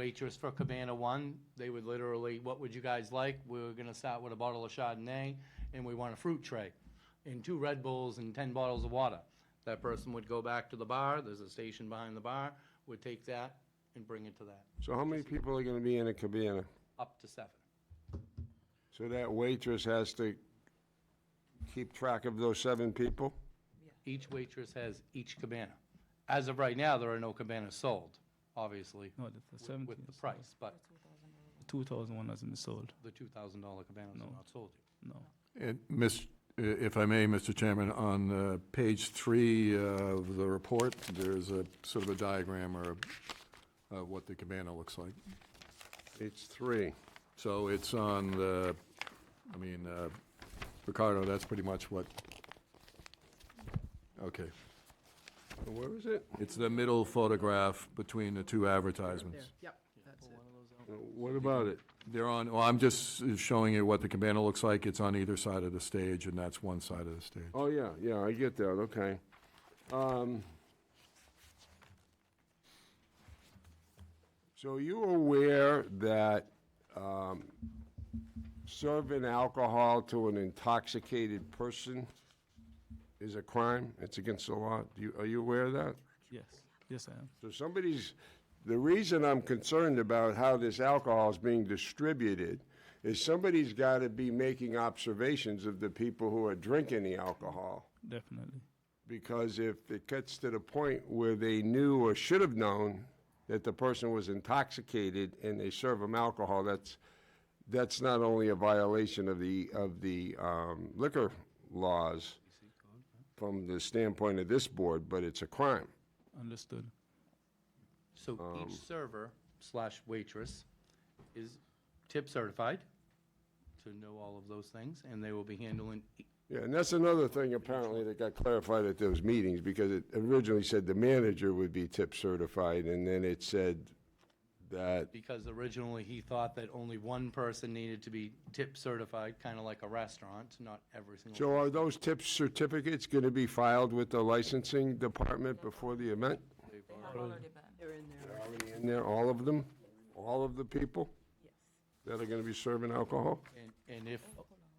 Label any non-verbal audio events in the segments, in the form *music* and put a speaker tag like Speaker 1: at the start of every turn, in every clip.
Speaker 1: waitress for Cabana One. They would literally, what would you guys like? We were gonna start with a bottle of Chardonnay, and we want a fruit tray, and two Red Bulls and ten bottles of water. That person would go back to the bar, there's a station behind the bar, would take that and bring it to that,
Speaker 2: So how many people are gonna be in a cabana?
Speaker 1: up to seven.
Speaker 2: So that waitress has to keep track of those seven people?
Speaker 1: Each waitress has each cabana. As of right now, there are no cabanas sold, obviously,
Speaker 3: No, the, the
Speaker 1: wi-
Speaker 3: 17
Speaker 1: with the
Speaker 3: is
Speaker 1: price, but
Speaker 3: sold. 2001 hasn't sold.
Speaker 1: the two thousand dollar cabanas are not sold. yet.
Speaker 3: No.
Speaker 4: And Miss, uh, if I may, Mr. Chairman, on uh, page three uh, of the report, there's a sort of a diagram or a- of what the cabana looks like.
Speaker 2: It's three.
Speaker 4: So it's on the, I mean, uh, Ricardo, that's pretty much what, okay.
Speaker 2: Where is it?
Speaker 4: It's the middle photograph between the two advertisements.
Speaker 5: Yep, that's it.
Speaker 2: Uh, What about it?
Speaker 4: They're on, well, I'm just showing you what the cabana looks like. It's on either side of the stage, and that's one side of the stage.
Speaker 2: Oh, yeah, yeah, I get that, okay. Um, So are you aware that um, serving alcohol to an intoxicated person is a crime? It's against the law? Do you- Are you aware of that?
Speaker 3: Yes. Yes, I am.
Speaker 2: So somebody's, the reason I'm concerned about how this alcohol is being distributed is somebody's got to be making observations of the people who are drinking the alcohol.
Speaker 3: Definitely.
Speaker 2: Because if it gets to the point where they knew or should have known that the person was intoxicated and they serve them alcohol, that's, that's not only a violation of the, of the um, liquor laws from the standpoint of this board, but it's a crime.
Speaker 3: Understood.
Speaker 1: So each server slash waitress is tip certified to know all of those things, and they will be handling, e-
Speaker 2: Yeah, and that's another thing apparently that got clarified at those meetings, because it originally said the manager would be tip certified, and then it said that,
Speaker 1: because originally he thought that only one person needed to be tip certified, kind of like a restaurant, not every single.
Speaker 2: so are those tip certificates gonna be filed with the licensing department before the event?
Speaker 5: They're in there.
Speaker 2: They're already in there, all of them? All of the people? That are gonna be serving alcohol?
Speaker 1: And, and if,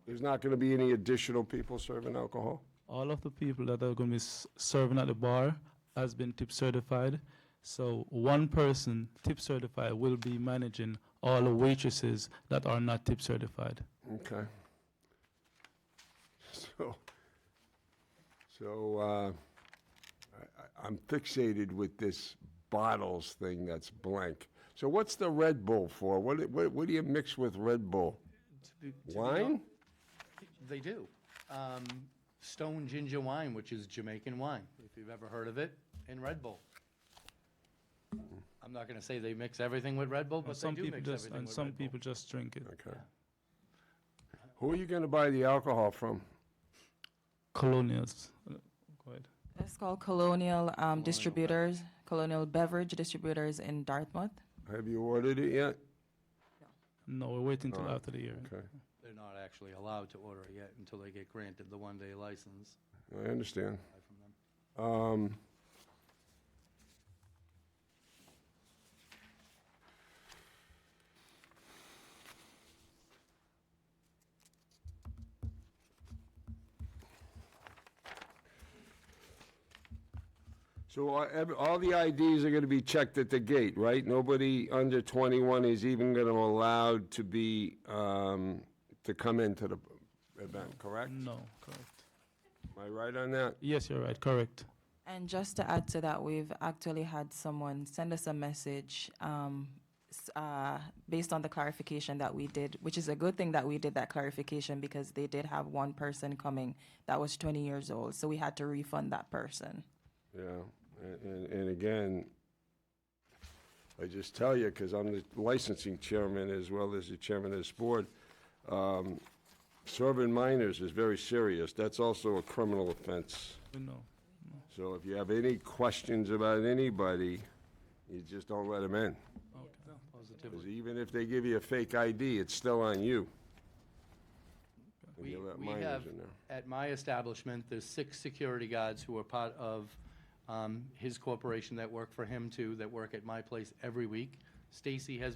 Speaker 2: There's not gonna be any additional people serving alcohol?
Speaker 3: All of the people that are going to be s- serving at the bar has been tip certified. So one person tip certified will be managing all the waitresses that are not tip certified.
Speaker 2: Okay. *laughs* So, so, uh, I, I- I'm fixated with this bottles thing that's blank. So what's the Red Bull for? What, do- what, what do you mix with Red Bull?
Speaker 1: to be- to be
Speaker 2: Wine?
Speaker 1: They do. Um, Stone ginger wine, which is Jamaican wine, if you've ever heard of it, and Red Bull. I'm not gonna say they mix everything with Red Bull,
Speaker 3: And
Speaker 1: but they
Speaker 3: some
Speaker 1: do
Speaker 3: people
Speaker 1: mix
Speaker 3: just
Speaker 1: everything
Speaker 3: and
Speaker 1: with
Speaker 3: some
Speaker 1: Red Bull.
Speaker 3: people just drink it.
Speaker 2: Okay. Who are you gonna buy the alcohol from?
Speaker 3: Colonials. Uh, Go ahead.
Speaker 6: That's called Colonial um, Distributors, Colonial Beverage Distributors in Dartmouth.
Speaker 2: Have you ordered it yet?
Speaker 3: No, we're waiting till
Speaker 2: Alright,
Speaker 3: after the year.
Speaker 2: Okay,
Speaker 1: They're not actually allowed to order it yet until they get granted the one-day license
Speaker 2: I understand.
Speaker 1: Buy from them.
Speaker 2: Um, So are ev- all the IDs are going to be checked at the gate, right? Nobody under 21 is even going to allowed to be, um, to come into the event, correct? Am
Speaker 3: No, correct.
Speaker 2: I right on that?
Speaker 3: Yes, you're right. Correct.
Speaker 6: And just to add to that, we've actually had someone send us a message um, s- uh, based on the clarification that we did, which is a good thing that we did that clarification because they did have one person coming that was 20 years old. So we had to refund that person.
Speaker 2: Yeah, and- and, and again, I just tell you, because I'm the licensing chairman as well as the chairman of this board, um, serving minors is very serious. That's also a criminal offense.
Speaker 3: We know.
Speaker 2: So if you have any questions about anybody, you just don't let them in.
Speaker 3: Okay.
Speaker 1: Positively.
Speaker 2: Because even if they give you a fake ID, it's still on you. If you
Speaker 1: We-
Speaker 2: let
Speaker 1: we
Speaker 2: minors
Speaker 1: have-
Speaker 2: in there.
Speaker 1: At my establishment, there's six security guards who are part of um, his corporation that work for him too, that work at my place every week. Stacy has been